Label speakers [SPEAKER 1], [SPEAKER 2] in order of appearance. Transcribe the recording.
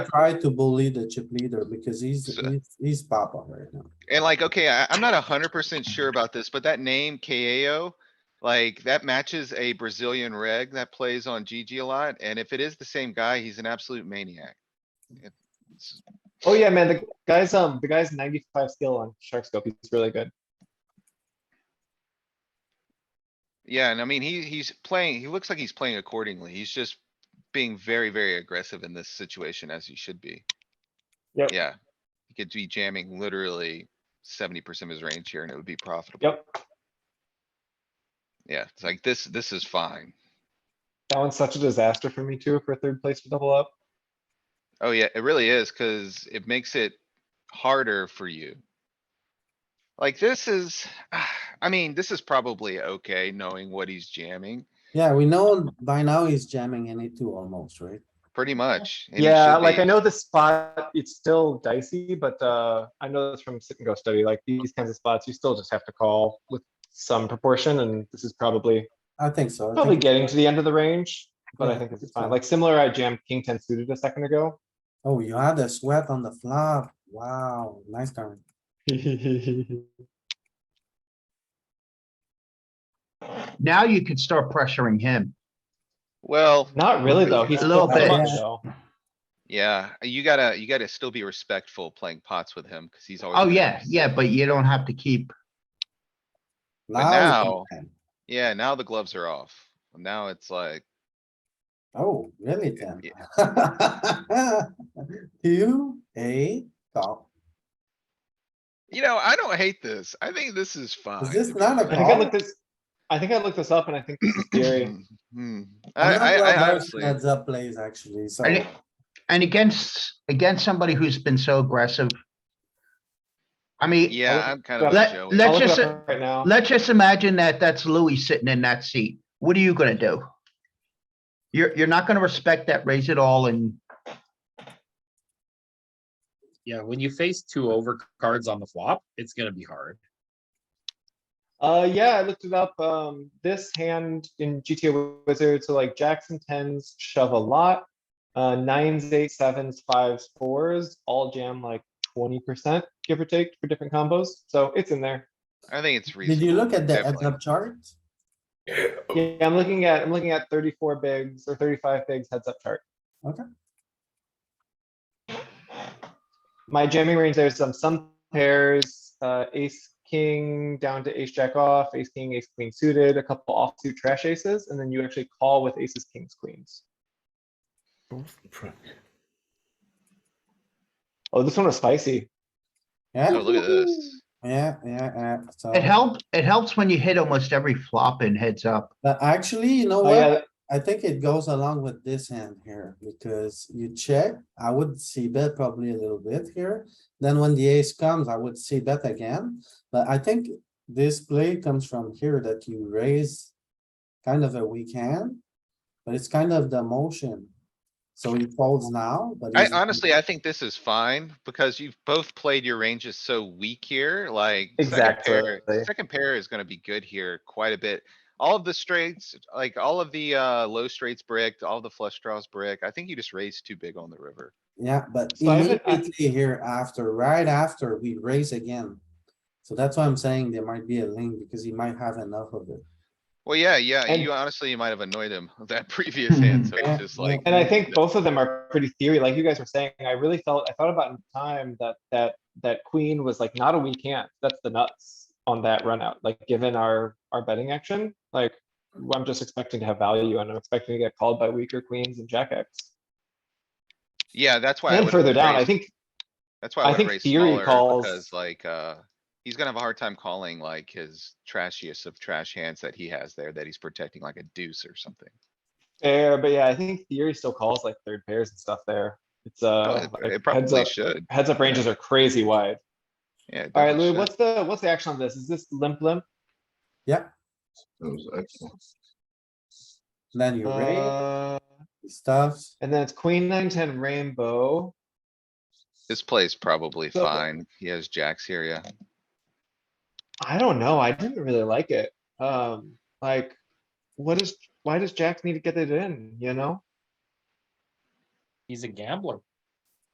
[SPEAKER 1] Try to bully the chip leader because he's,
[SPEAKER 2] So-
[SPEAKER 1] he's- he's pop up right now.
[SPEAKER 2] And like, okay, I, I'm not a hundred percent sure about this, but that name KAO, like that matches a Brazilian reg that plays on GG a lot. And if it is the same guy, he's an absolute maniac. If- it's-
[SPEAKER 3] Oh yeah, man, the guy's um the guy's ninety-five skill on Shark Scope. He's really good.
[SPEAKER 2] Yeah, and I mean, he, he's playing, he looks like he's playing accordingly. He's just being very, very aggressive in this situation as he should be.
[SPEAKER 3] Yep.
[SPEAKER 2] Yeah, he could be jamming literally seventy percent of his range here and it would be profitable.
[SPEAKER 3] Yep,
[SPEAKER 2] Yeah, it's like this, this is fine.
[SPEAKER 3] that one's such a disaster for me too for third place to double up.
[SPEAKER 2] Oh yeah, it really is, cuz it makes it harder for you. Like this is, I mean, this is probably okay, knowing what he's jamming,
[SPEAKER 1] Yeah, we know by now he's jamming any two almost, right?
[SPEAKER 2] pretty much. and he
[SPEAKER 3] Yeah,
[SPEAKER 2] should
[SPEAKER 3] like I
[SPEAKER 2] be.
[SPEAKER 3] know the spot, it's still dicey, but uh I know this from sit and go study, like these kinds of spots, you still just have to call with some proportion and this is probably
[SPEAKER 1] I think so. I
[SPEAKER 3] probably
[SPEAKER 1] think,
[SPEAKER 3] getting to the end of the range, but I
[SPEAKER 1] Yeah,
[SPEAKER 3] think this is
[SPEAKER 1] it's fine.
[SPEAKER 3] fine. Like similar, I jammed king ten suited a second ago.
[SPEAKER 1] oh, you had a sweat on the flop. Wow, nice turn.
[SPEAKER 4] Now you can start pressuring him.
[SPEAKER 2] Well,
[SPEAKER 3] Not really though. He's
[SPEAKER 4] A little
[SPEAKER 3] still
[SPEAKER 1] bit.
[SPEAKER 3] much, though.
[SPEAKER 2] yeah, you gotta, you gotta still be respectful playing pots with him, cuz he's always.
[SPEAKER 4] Oh,
[SPEAKER 2] gonna
[SPEAKER 4] yeah,
[SPEAKER 2] have-
[SPEAKER 4] yeah, but you don't have to keep,
[SPEAKER 1] Now, it's ten.
[SPEAKER 2] Yeah, now the gloves are off. Now it's like,
[SPEAKER 1] oh, really ten? Two, a call.
[SPEAKER 2] you know, I don't hate this. I think this is fine.
[SPEAKER 1] this
[SPEAKER 2] to be
[SPEAKER 1] not a
[SPEAKER 3] I think I
[SPEAKER 1] call?
[SPEAKER 2] honest.
[SPEAKER 3] looked this, I think I looked this up and I think this is scary.
[SPEAKER 2] Hmm. I,
[SPEAKER 1] I'm not
[SPEAKER 2] I,
[SPEAKER 1] well versed
[SPEAKER 2] I
[SPEAKER 1] in
[SPEAKER 2] honestly.
[SPEAKER 1] Heads up plays actually, so.
[SPEAKER 4] and, it- and against, against somebody who's been so aggressive. I mean,
[SPEAKER 2] Yeah, I'm kind of.
[SPEAKER 4] Let-
[SPEAKER 2] a Joey.
[SPEAKER 4] let-
[SPEAKER 3] I'll look it
[SPEAKER 4] just
[SPEAKER 3] up Right now.
[SPEAKER 4] let's just imagine that that's Louis sitting in that seat. What are you gonna do? You're, you're not gonna respect that raise at all and
[SPEAKER 5] Yeah, when you face two over cards on the flop, it's gonna be hard.
[SPEAKER 3] Uh, yeah, I looked it up. Um, this hand in GTA Wizard, so like Jackson tens shove a lot. Uh, nines, eight, sevens, fives, fours, all jam like twenty percent, give or take, for different combos. So it's in there.
[SPEAKER 2] I think it's
[SPEAKER 1] Did
[SPEAKER 2] reasonable.
[SPEAKER 1] you look at the heads
[SPEAKER 2] definitely.
[SPEAKER 1] up chart?
[SPEAKER 3] Yeah, I'm looking at, I'm looking at thirty-four bigs or thirty-five bigs heads up chart.
[SPEAKER 1] Okay.
[SPEAKER 3] My jamming range, there's some, some pairs, uh, ace, king, down to ace jack off, ace, king, ace, queen suited, a couple offsuit trash aces, and then you actually call with aces, kings, queens. Oh, this one was spicy.
[SPEAKER 2] Oh,
[SPEAKER 1] Yeah,
[SPEAKER 2] look at this.
[SPEAKER 1] yeah, yeah, yeah, so.
[SPEAKER 4] it helps, it helps when you hit almost every flop and heads up.
[SPEAKER 1] But actually, you know
[SPEAKER 3] Oh,
[SPEAKER 1] what?
[SPEAKER 3] yeah,
[SPEAKER 1] I think it goes along with this hand here, because you check, I would see bet probably a little bit here. Then when the ace comes, I would see bet again, but I think this play comes from here that you raise. Kind of a weak hand, but it's kind of the motion. So he folds now, but.
[SPEAKER 2] I
[SPEAKER 1] he's-
[SPEAKER 2] honestly, I think this is fine because you've both played your ranges so weak here, like. second pair-
[SPEAKER 3] Exactly.
[SPEAKER 2] Second pair is gonna be good here quite a bit. All of the straights, like all of the, uh, low straights bricked, all the flush draws brick. I think you just raised too big on the river.
[SPEAKER 1] Yeah, but
[SPEAKER 3] So I haven't- I-
[SPEAKER 1] immediately here after, right after, we raise again. So that's why I'm saying there might be a link, because he might have enough of it.
[SPEAKER 2] Well, yeah, yeah,
[SPEAKER 3] And-
[SPEAKER 2] you honestly, you might have annoyed him with that previous
[SPEAKER 1] Hmm.
[SPEAKER 2] hand, so
[SPEAKER 1] Yeah,
[SPEAKER 2] it's just
[SPEAKER 1] yeah.
[SPEAKER 2] like.
[SPEAKER 3] And I
[SPEAKER 2] Yeah.
[SPEAKER 3] think both of them are pretty theory, like you guys were saying, I really felt, I thought about in time that, that, that queen was like not a weak hand, that's the nuts on that run out, like given our, our betting action, like, I'm just expecting to have value and I'm expecting to get called by weaker queens and jack X.
[SPEAKER 2] Yeah, that's why. I
[SPEAKER 3] And
[SPEAKER 2] would've
[SPEAKER 3] further down, I
[SPEAKER 2] raised-
[SPEAKER 3] think,
[SPEAKER 2] That's why I
[SPEAKER 3] I
[SPEAKER 2] would
[SPEAKER 3] think
[SPEAKER 2] raise
[SPEAKER 3] theory
[SPEAKER 2] smaller
[SPEAKER 3] calls-
[SPEAKER 2] because like, uh, he's gonna have a hard time calling like his trashiest of trash hands that he has there that he's protecting like a deuce or something.
[SPEAKER 3] fair, but yeah, I think theory still calls like third pairs and stuff there. It's,
[SPEAKER 2] Oh,
[SPEAKER 3] uh,
[SPEAKER 2] It
[SPEAKER 3] like,
[SPEAKER 2] it
[SPEAKER 3] heads
[SPEAKER 2] probably
[SPEAKER 3] up,
[SPEAKER 2] should.
[SPEAKER 3] heads up ranges are crazy wide.
[SPEAKER 2] Yeah. it
[SPEAKER 3] Alright,
[SPEAKER 2] definitely
[SPEAKER 3] Lou,
[SPEAKER 2] should.
[SPEAKER 3] what's the, what's the action on this? Is this limp limp?
[SPEAKER 1] Then you raise,
[SPEAKER 3] Uh,
[SPEAKER 1] stuffs.
[SPEAKER 3] and then it's queen nine, ten rainbow.
[SPEAKER 2] This play's probably
[SPEAKER 3] So-
[SPEAKER 2] fine. He has jacks here, yeah.
[SPEAKER 3] I don't know. I didn't really like it. Um, like, what is, why does Jack need to get it in, you know?
[SPEAKER 5] He's a gambler.